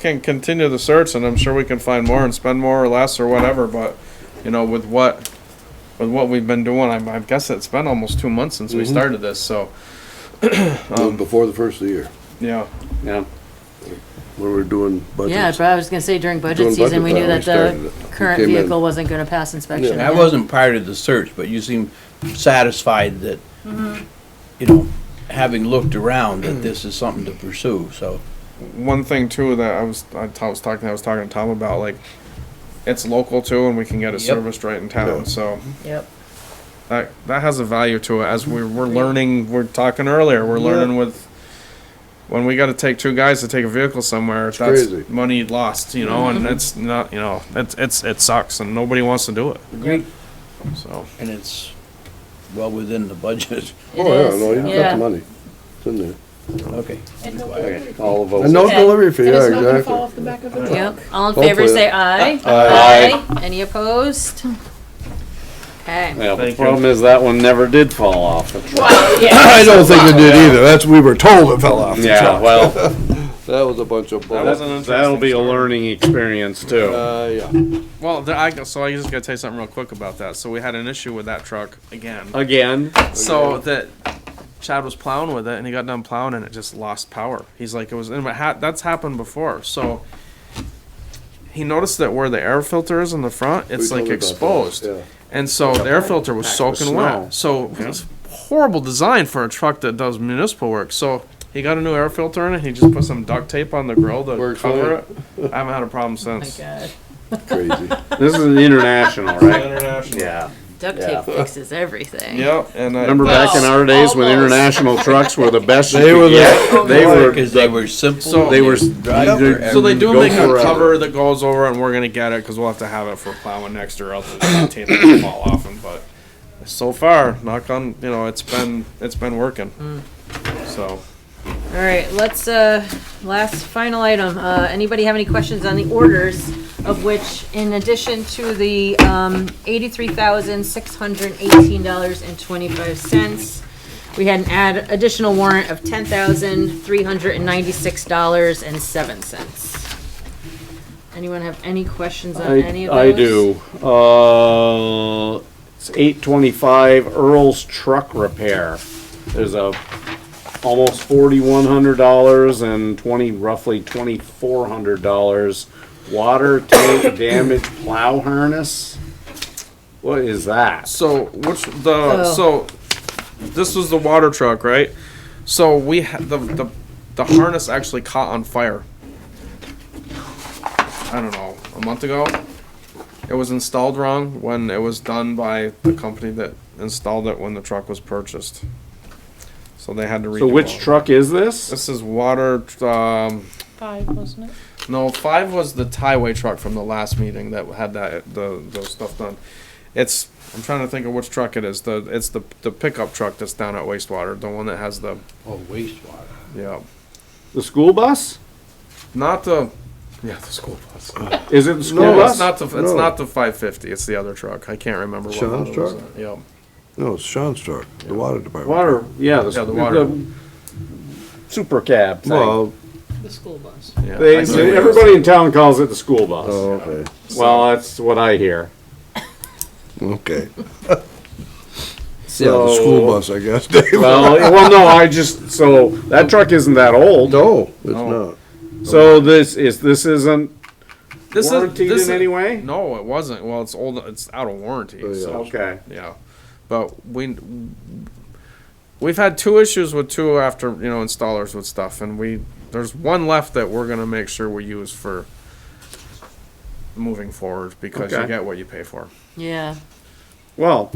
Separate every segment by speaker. Speaker 1: can continue the search and I'm sure we can find more and spend more or less or whatever, but, you know, with what, with what we've been doing, I, I guess it's been almost two months since we
Speaker 2: Mhm.
Speaker 1: started this, so,
Speaker 3: Um,
Speaker 2: Before the first of the year,
Speaker 1: yeah.
Speaker 4: Yeah,
Speaker 2: when we were doing
Speaker 3: Yeah,
Speaker 2: budgets.
Speaker 3: but I was gonna say during budget
Speaker 2: During
Speaker 3: season, we
Speaker 2: budget
Speaker 3: knew
Speaker 2: time,
Speaker 3: that
Speaker 2: we
Speaker 3: the
Speaker 2: started it.
Speaker 3: current
Speaker 2: We came in-
Speaker 3: vehicle wasn't gonna pass inspection.
Speaker 5: I wasn't part of the search, but you seem satisfied that, you know, having looked around, that this is something to pursue, so.
Speaker 1: one thing too that I was I t- I was talking I was talking to Tom about like it's local too and we can get it
Speaker 5: Yep.
Speaker 1: serviced right in town
Speaker 2: Yeah.
Speaker 1: so
Speaker 3: Yep.
Speaker 1: that that has a value to it as we're, we're learning we're talking earlier we're learning with when we got to take two guys to take a vehicle somewhere that's
Speaker 2: crazy.
Speaker 1: money lost you know and it's not you know it's it's it sucks and nobody wants to do it
Speaker 5: Agreed.
Speaker 1: so
Speaker 5: And it's well within the budget.
Speaker 3: It
Speaker 2: Oh, yeah,
Speaker 3: is,
Speaker 2: no, you got
Speaker 3: yeah.
Speaker 2: the money, it's in there.
Speaker 5: Okay.
Speaker 6: And no
Speaker 4: okay,
Speaker 6: delivery fee.
Speaker 4: all of
Speaker 2: And
Speaker 4: us.
Speaker 2: no
Speaker 6: Okay.
Speaker 2: delivery fee,
Speaker 6: And
Speaker 2: yeah,
Speaker 6: it's not gonna fall
Speaker 2: exactly.
Speaker 6: off the back of the truck.
Speaker 3: Yep, all in favor, say aye.
Speaker 4: Aye.
Speaker 3: Any opposed? Okay.
Speaker 4: Yeah, the
Speaker 1: Thank you.
Speaker 4: problem is that one never did fall off the truck.
Speaker 6: Well, yeah.
Speaker 3: Oh
Speaker 2: I don't think it did either, that's, we were told it fell off the
Speaker 4: Yeah,
Speaker 2: truck.
Speaker 4: well,
Speaker 2: That was a bunch of
Speaker 3: uh,
Speaker 1: That was an
Speaker 2: bull.
Speaker 1: interesting
Speaker 4: that'll be a
Speaker 1: story.
Speaker 4: learning experience too.
Speaker 2: Uh, yeah,
Speaker 1: well there, I, so I just got to tell you something real quick about that so we had an issue with that truck again
Speaker 4: Again,
Speaker 1: So that Chad was plowing with it, and he got done plowing, and it just lost power. He's like, it was, and it ha- that's happened before. So he noticed that where the air filter is in the front, it's like
Speaker 2: We told you about that,
Speaker 1: exposed,
Speaker 2: yeah.
Speaker 1: and so the air filter was
Speaker 4: with
Speaker 1: soaking wet. So it's horrible design for a truck that does municipal work. So. He got a new air filter in it. He just put some duct tape on the grill to
Speaker 2: Works
Speaker 1: cover
Speaker 2: fine.
Speaker 1: it. I haven't had a problem since.
Speaker 2: crazy.
Speaker 4: this is international, right?
Speaker 1: International.
Speaker 4: Yeah.
Speaker 3: Duct
Speaker 4: Yeah.
Speaker 3: tape fixes everything.
Speaker 1: Yep. And I,
Speaker 4: Remember back in our days when
Speaker 6: almost.
Speaker 4: international trucks were the best you
Speaker 2: They were
Speaker 4: could
Speaker 2: the-
Speaker 4: get? They were,
Speaker 5: Because they were simple.
Speaker 1: So-
Speaker 4: they were.
Speaker 5: drive
Speaker 4: they-
Speaker 5: forever.
Speaker 1: So they do
Speaker 4: go
Speaker 1: make a
Speaker 4: forever.
Speaker 1: cover that goes over, it, and we're gonna get it because we'll have to have it for plowing next year, else it's gonna taint it fall off. And but so far, knock on, you know, it's been it's been working. So
Speaker 3: All right, let's, uh, last, final item. Uh, anybody have any questions on the orders? Of which, in addition to the, um, eighty-three thousand, six hundred and eighteen dollars and twenty-five cents, we had an add, additional warrant of ten thousand, three hundred and ninety-six dollars and seven cents. Anyone have any questions on any
Speaker 4: I,
Speaker 3: of those?
Speaker 4: I do. Uh, it's eight twenty-five Earl's Truck Repair. There's a almost forty-one hundred dollars and twenty, roughly twenty-four hundred dollars. Water tank damage plow harness. What is that?
Speaker 1: so which the
Speaker 3: Oh.
Speaker 1: so this was the water truck, right? So we had the the the harness actually caught on fire. I don't know, a month ago. It was installed wrong when it was done by the company that installed it when the truck was purchased. So they had to redo.
Speaker 4: So which
Speaker 1: all-
Speaker 4: truck is this?
Speaker 1: This is water. Um,
Speaker 6: Five, wasn't it?
Speaker 1: no, five was the tieway truck from the last meeting that had that the the stuff done. It's I'm trying to think of which truck it is. The it's the the pickup truck that's down at wastewater, the one that has the
Speaker 5: Oh, wastewater.
Speaker 1: yeah,
Speaker 4: The school bus?
Speaker 1: not the yeah the school bus.
Speaker 4: Is it the school
Speaker 1: No, it's
Speaker 4: bus?
Speaker 1: not the it's
Speaker 2: No.
Speaker 1: not the 550. It's the other truck. I can't remember what
Speaker 2: Sean's
Speaker 1: model it was
Speaker 2: truck?
Speaker 1: on. Yeah.
Speaker 2: No, it's Sean's truck, the water department.
Speaker 4: Water, yeah, the,
Speaker 1: Yeah, the water.
Speaker 4: the super cab thing.
Speaker 2: Well,
Speaker 6: The school bus.
Speaker 1: yeah.
Speaker 4: They,
Speaker 1: I
Speaker 2: see.
Speaker 4: everybody in town calls it the school bus.
Speaker 2: oh, okay,
Speaker 4: Well, that's what I hear.
Speaker 2: okay. Yeah,
Speaker 4: So,
Speaker 2: the school bus, I guess, Dave.
Speaker 4: Well, well, no, I just, so that truck isn't that old.
Speaker 2: No, it's
Speaker 1: No.
Speaker 2: not.
Speaker 4: So this is, this isn't
Speaker 1: This is-
Speaker 4: warranted
Speaker 1: this
Speaker 4: in any way?
Speaker 1: No, it wasn't. Well, it's old. It's out of warranty.
Speaker 2: Oh, yeah.
Speaker 1: so-
Speaker 4: Okay.
Speaker 1: Yeah, but we we've had two issues with two after you know installers with stuff, and we there's one left that we're gonna make sure we use for moving forward because you
Speaker 4: Okay.
Speaker 1: get what you pay for.
Speaker 3: Yeah.
Speaker 4: Well,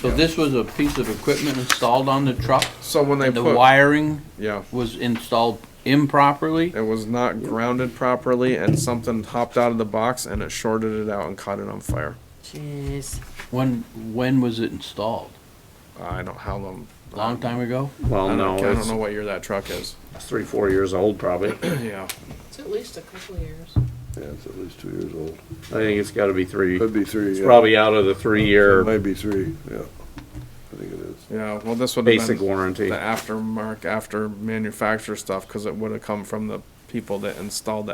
Speaker 5: So this was a piece of equipment installed on the truck,
Speaker 1: So when they
Speaker 5: and the
Speaker 1: put
Speaker 5: wiring
Speaker 1: yeah,
Speaker 5: was installed improperly?
Speaker 1: it was not grounded properly, and something hopped out of the box and it shorted it out and caught it on fire.
Speaker 3: Jeez.
Speaker 5: When, when was it installed?
Speaker 1: I don't how long.
Speaker 5: Long time ago?
Speaker 1: I
Speaker 4: well,
Speaker 1: don't,
Speaker 4: no,
Speaker 1: I don't know
Speaker 4: it's
Speaker 1: what year that truck is.
Speaker 4: three, four years old probably. I
Speaker 1: yeah.
Speaker 6: It's at least a couple of years.
Speaker 2: Yeah, it's at least two years old.
Speaker 4: think it's gotta be three.
Speaker 2: Could be three,
Speaker 4: It's
Speaker 2: yeah.
Speaker 4: probably out of the three-year
Speaker 2: Maybe three, yeah. I think it is.
Speaker 1: Yeah, well, this would have been
Speaker 4: basic warranty.
Speaker 1: the aftermarket after manufacturer stuff because it would have come from the people that installed the